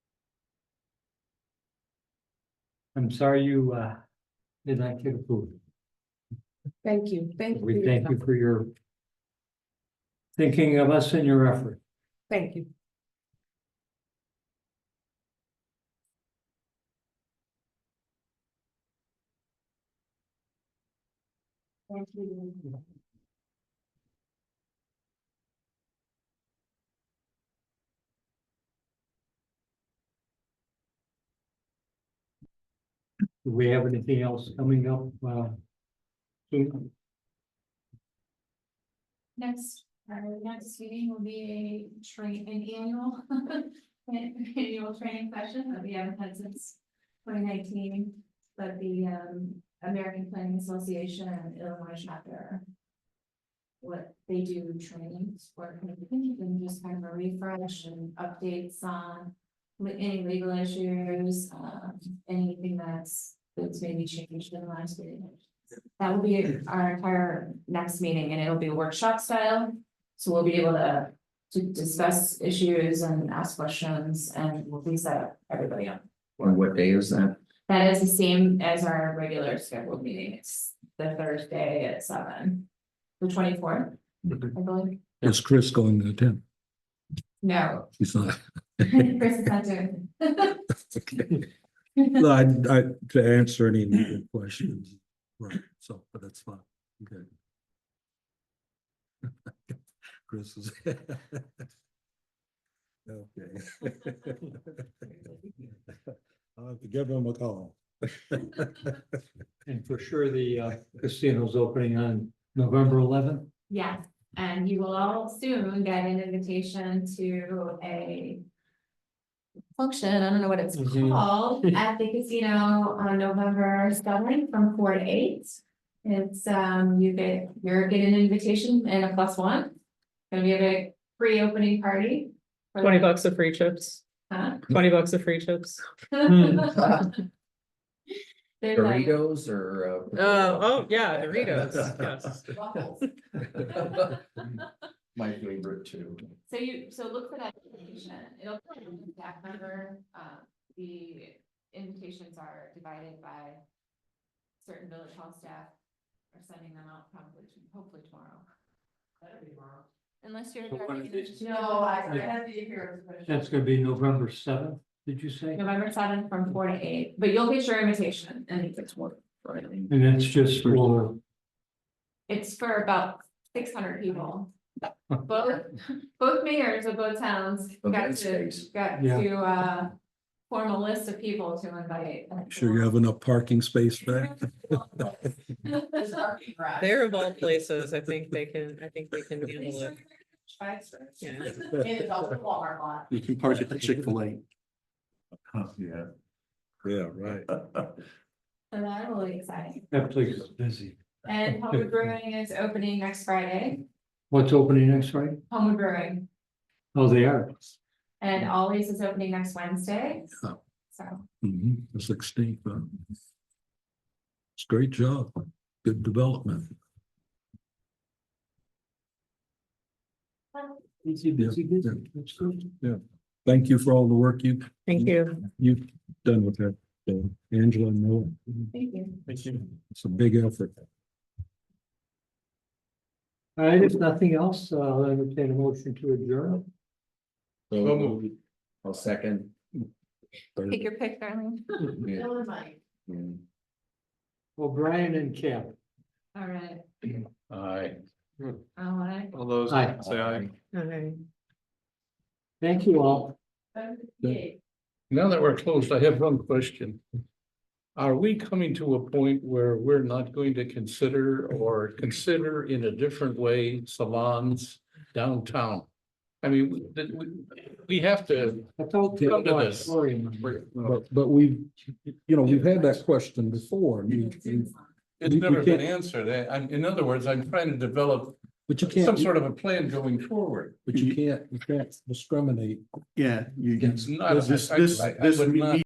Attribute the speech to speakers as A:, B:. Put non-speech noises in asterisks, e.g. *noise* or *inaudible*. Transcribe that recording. A: I'm sorry you uh did not get approved.
B: Thank you, thank you. for
A: We
B: your
A: thank you
B: time.
A: for your thinking of us and your effort.
B: Thank you. Thank you.
A: Do we have anything else coming up? uh, soon?
C: Next, our next meeting will be a train, an annual, *laughs* an annual training session that we haven't had since twenty nineteen. But the um American Planning Association and Illinois chapter. What they do trainings for, communities and just kind of a refresh and updates on le- any legal issues, um anything that's, that's maybe changed in the last meeting. That will be our entire next meeting and it'll be workshop style. So we'll be able to, to discuss issues and ask questions and we'll be set up everybody up.
D: On what day is that?
C: That is the same as our regular scheduled meeting. It's the Thursday at seven. The twenty fourth, I believe.
E: Is Chris going to attend?
D: *laughs*
C: No,
E: He's not.
C: Chris is not doing.
E: Okay. No, I, I, to answer any needed questions, right, so, but that's fine, okay. *laughs* Chris is. *laughs* Okay. *laughs* I'll have to give him a call.
A: And for sure, the uh, casino's opening on November eleventh.
C: Yes, and you will all soon get an invitation to a. Function, I don't know what it's
A: Mhm.
C: called, at the casino on November seventh from four to eight. It's um, you get, you're getting an invitation and a plus one. Gonna be a big pre-opening party. for- uh,
F: Twenty bucks of free chips,
C: Huh? *laughs*
F: twenty bucks of free chips.
C: There's like
D: Burritos or?
F: Uh, oh, yeah,
D: *laughs*
F: Doritos, yes.
C: waffles.
D: My favorite too.
C: So you, so look for that invitation, it'll come from the staff member, uh, the invitations are divided by. Certain village hall staff are sending them out probably, to- hopefully tomorrow. Better be tomorrow. Unless you're.
A: So when
C: already
A: is
C: in- No, I,
A: I
C: have to be here.
A: That's gonna be November seventh, did you say?
C: November seventh from four to eight, but you'll get your invitation and
D: That's what.
A: And that's just for,
C: it's for about six hundred people. Both, both mayors of both towns
D: Of
C: got
D: that
C: to,
D: space.
C: got
A: Yeah.
C: to, uh, form a list of people to invite.
E: Sure you have enough parking space for
C: *laughs*
E: that?
F: They're of all places, I think they can, I think they can handle it. Yeah.
G: You can park at the Chick-fil-A.
D: Yeah.
E: Yeah, right.
C: So that'll be exciting.
A: that place is busy.
C: And Homewood Brewing is opening next Friday,
A: What's opening next Friday?
C: Homewood Brewing,
A: Oh, they are.
C: and Ollie's is opening next Wednesday.
E: Yeah.
C: So,
E: Mhm, The sixteenth. It's great job, good development.
A: Busy, busy, busy. That's good.
E: Thank you for all the work you,
F: Thank you.
E: you've done with that, uh, Angela, and Noah.
C: thank you.
E: it's a big effort.
A: All right, if nothing else, uh, I'll entertain a motion to adjourn.
D: So moved. I'll second.
C: Take your pick, darling.
D: Yeah.
C: Bill and Mike.
D: Mm.
A: O'Brien and Cap.
C: All right,
D: Aye.
C: all right.
G: All those,
A: Aye.
G: say aye.
F: Okay.
A: Thank you all.
C: Yay.
G: Now that we're closed, I have one question. Are we coming to a point where we're not going to consider or consider in a different way salons downtown? I mean, we- that we, we have to,
A: I thought
G: Come to
A: that
G: this.
A: Sorry.
E: But, but we've, you know, we've had that question before, and you- you-
G: it's
E: We- we
G: never been
E: can't-
G: answered. I- I'm, in other words, I'm trying to develop
E: but you
G: some
E: can't,
G: sort of a plan going forward.
E: but you can't, you can't discriminate
H: Yeah, you,
G: It's not.
H: this,
G: I- I-
H: this,
G: I- I
H: this
G: would not-